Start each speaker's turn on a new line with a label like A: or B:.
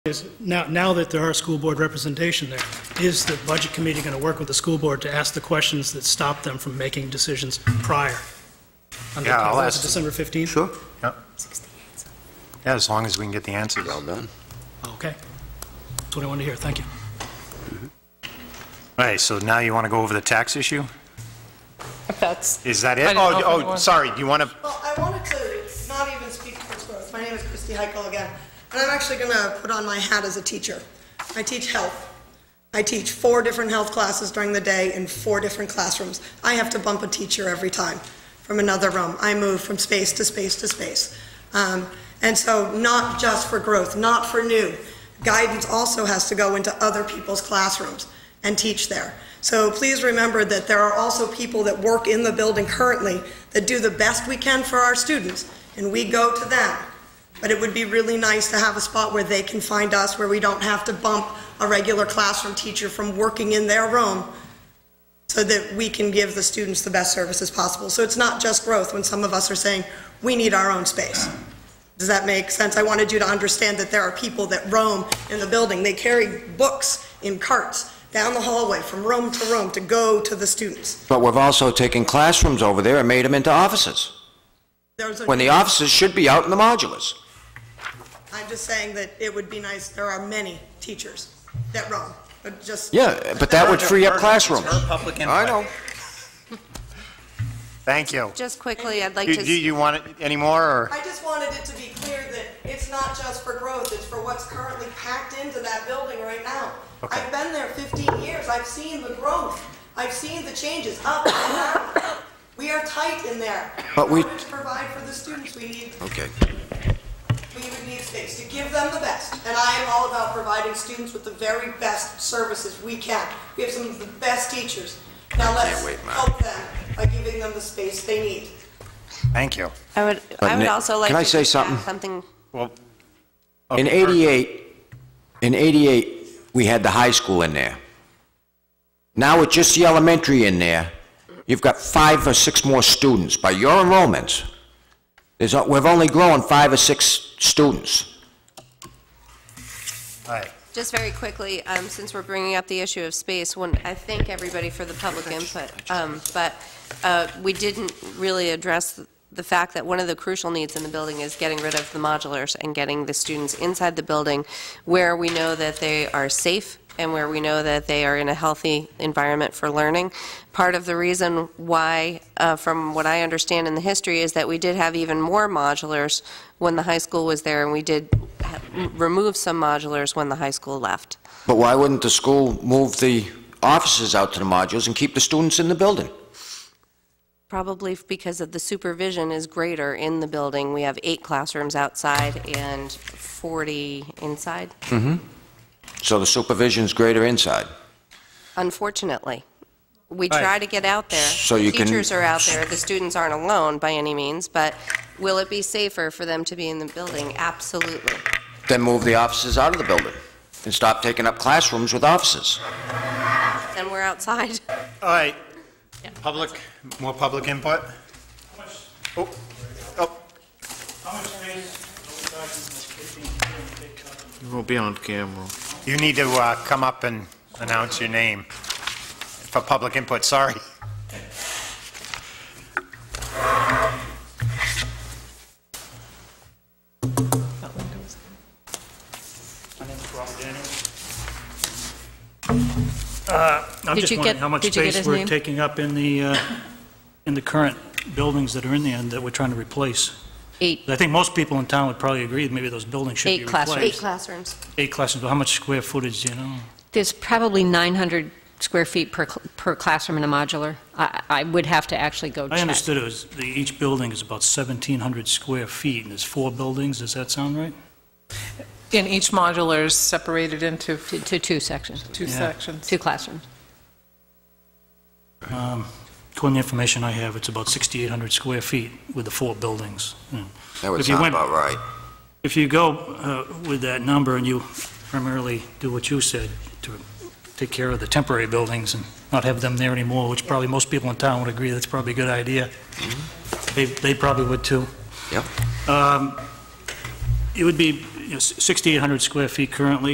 A: is, now, now that there are school board representation there, is the budget committee going to work with the school board to ask the questions that stop them from making decisions prior? On the-
B: Yeah, I'll
A: was it
B: ask-
A: December 15th?
B: Sure. Yeah, Yeah, as long as we can get the answers. All
C: Well done.
A: Okay. That's what I wanted to hear, thank you.
B: right, so now you want to go over the tax issue?
D: If that's,
B: Is that
D: I
B: it?
D: didn't know if
B: Oh,
D: it
B: oh,
D: was-
B: sorry, do you want to,
E: Well, I wanted to not even speak to this growth. My name is Christy Heichel again, and I'm actually going to put on my hat as a teacher. I teach health. I teach four different health classes during the day in four different classrooms. I have to bump a teacher every time from another room. I move from space to space to space. Um, and so, not just for growth, not for new. Guidance also has to go into other people's classrooms and teach there. So please remember that there are also people that work in the building currently that do the best we can for our students, and we go to them. But it would be really nice to have a spot where they can find us, where we don't have to bump a regular classroom teacher from working in their room so that we can give the students the best services possible. So it's not just growth when some of us are saying, we need our own space. Does that make sense? I wanted you to understand that there are people that roam in the building. They carry books in carts down the hallway from room to room to go to the students.
C: But we've also taken classrooms over there and made them into offices,
E: There's a-
C: when the offices should be out in the modulars.
E: I'm just saying that it would be nice, there are many teachers that roam, but just.
C: Yeah, but that would free up classrooms. I know.
B: thank you.
F: Just quickly, I'd like
B: Do do
F: to,
B: you want it any more, or?
E: I just wanted it to be clear that it's not just for growth, it's for what's currently packed into that building right now.
B: Okay.
E: I've been there 15 years, I've seen the growth, I've seen the changes up and down. We are tight in there.
C: But we-
E: In order to provide for the students, we need,
C: Okay.
E: we would need space to give them the best. And I am all about providing students with the very best services we can. We have some of the best teachers. Now let's
C: wait, Mark.
E: help them by giving them the space they need.
B: Thank you.
F: I would,
C: But
F: I would
C: Nick,
F: also like to.
C: can I say
F: just add
C: something?
F: Something,
B: Well,
C: In 88, in 88, we had the high school in there. Now with just the elementary in there, you've got five or six more students by your enrollments. There's, we've only grown five or six students.
B: all right.
F: just very quickly, um, since we're bringing up the issue of space, when, I thank everybody for the public input, um, but, uh, we didn't really address the fact that one of the crucial needs in the building is getting rid of the modulars and getting the students inside the building where we know that they are safe and where we know that they are in a healthy environment for learning. Part of the reason why, uh, from what I understand in the history, is that we did have even more modulars when the high school was there, and we did ha- remove some modulars when the high school left.
C: But why wouldn't the school move the offices out to the modules and keep the students in the building?
F: Probably because of the supervision is greater in the building. We have eight classrooms outside and 40 inside,
C: So the supervision's greater inside.
F: unfortunately. We
B: Right.
F: try to get out there.
C: So you can-
F: Teachers are out there, the students aren't alone by any means, but will it be safer for them to be in the building? Absolutely.
C: Then move the offices out of the building and stop taking up classrooms with offices.
F: Then we're outside.
B: All right. Public, more public input? Oh, oh,
G: How much space are we talking, fifteen, big company?
H: You won't be on camera.
B: you need to uh, come up and announce your name for public input, sorry.
G: Uh, I'm
D: Did
G: just
D: you
G: wondering
D: get-
G: how much
D: did you get
G: space
D: his
G: we're
D: name?
G: taking up in the, uh, in the current buildings that are in there and that we're trying to replace.
F: Eight,
G: I think most people in town would probably agree that maybe those buildings should be
D: Eight classrooms.
F: eight
G: replaced.
F: classrooms.
G: Eight classrooms, but how much square footage, do you know?
D: there's probably 900 square feet per, cl- per classroom in a modular. I, I would have to actually go check.
G: I understood it was, the- each building is about 1,700 square feet, and there's four buildings, does that sound right?
I: And each modular is separated into
D: To, to two sections,
I: two
G: Yeah.
I: sections.
D: two classrooms.
G: According to the information I have, it's about 6,800 square feet with the four buildings. Yeah.
C: That
G: If you went-
C: right.
G: If you go uh, with that number and you primarily do what you said, to take care of the temporary buildings and not have them there anymore, which probably most people in town would agree that's probably a good idea. They they probably would too.
C: Yep.
G: Um, It would be, you know, 6,800 square feet currently,